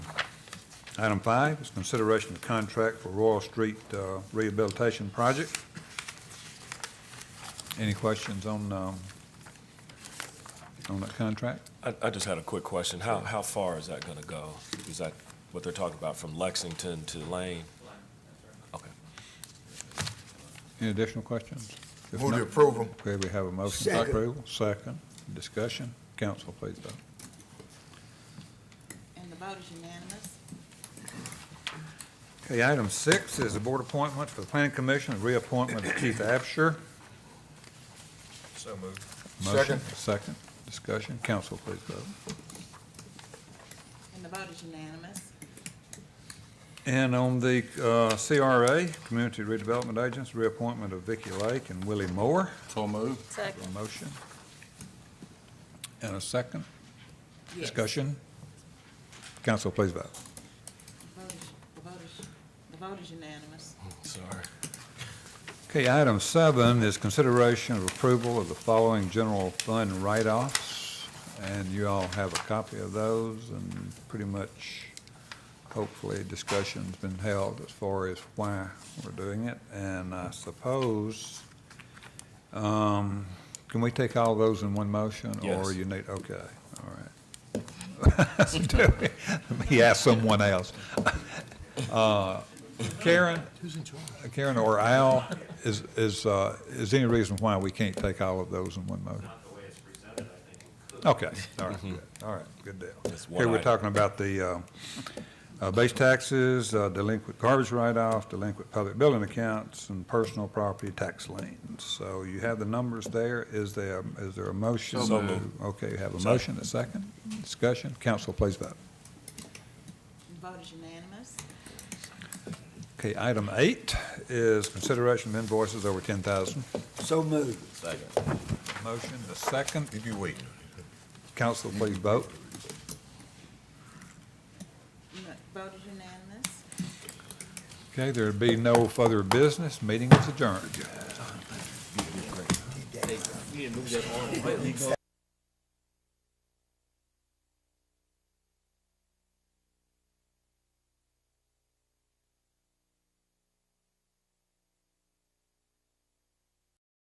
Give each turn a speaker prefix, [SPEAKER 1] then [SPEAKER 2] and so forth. [SPEAKER 1] Item five is consideration of contract for Royal Street uh, Rehabilitation Project. Any questions on, um, on that contract?
[SPEAKER 2] I, I just had a quick question. How, how far is that gonna go? Is that what they're talking about, from Lexington to Lane? Okay.
[SPEAKER 1] Any additional questions? If
[SPEAKER 3] Move to
[SPEAKER 1] not-
[SPEAKER 3] approve them.
[SPEAKER 1] Okay, we have a motion for
[SPEAKER 3] Second.
[SPEAKER 1] approval, second, discussion. Council, please vote.
[SPEAKER 4] And the vote is unanimous.
[SPEAKER 1] Okay, item six is the board appointment for the planning commission, the reappointment of Keith Absher.
[SPEAKER 2] So moved.
[SPEAKER 1] Motion,
[SPEAKER 3] Second.
[SPEAKER 1] Second, discussion. Council, please vote.
[SPEAKER 4] And the vote is unanimous.
[SPEAKER 1] And on the uh, CRA, Community Redevelopment Agents, reappointment of Vicky Lake and Willie Moore.
[SPEAKER 3] So move.
[SPEAKER 1] A motion. And a second. Discussion. Council, please vote.
[SPEAKER 4] The vote is, the vote is, the vote is unanimous.
[SPEAKER 2] Sorry.
[SPEAKER 1] Okay, item seven is consideration of approval of the following general fund write-offs. And you all have a copy of those and pretty much, hopefully, discussion's been held as far as why we're doing it. And I suppose, um, can we take all those in one motion? Or
[SPEAKER 2] Yes.
[SPEAKER 1] you need, okay, all right. Let me ask someone else. Uh, Karen? Karen or Al, is, is, uh, is any reason why we can't take all of those in one motion?
[SPEAKER 5] not the way it's presented, I think we could.
[SPEAKER 1] Okay, all right, good, all right, good deal.
[SPEAKER 2] Mm-hmm. That's one
[SPEAKER 1] Here, we're
[SPEAKER 2] item.
[SPEAKER 1] talking about the uh, uh, base taxes, uh, delinquent garbage write-off, delinquent public building accounts, and personal property tax liens. So you have the numbers there. Is there, is there a motion?
[SPEAKER 2] So moved.
[SPEAKER 1] Okay, you have a
[SPEAKER 2] Second.
[SPEAKER 1] motion, a second, discussion. Council, please vote.
[SPEAKER 4] The vote is unanimous.
[SPEAKER 1] Okay, item eight is consideration of invoices over 10,000.
[SPEAKER 3] So move.
[SPEAKER 2] Second.
[SPEAKER 1] Motion, the second.
[SPEAKER 3] If you wait.
[SPEAKER 1] Council, please vote.
[SPEAKER 4] And The vote is unanimous.
[SPEAKER 1] Okay, there'd be no further business. Meeting is adjourned.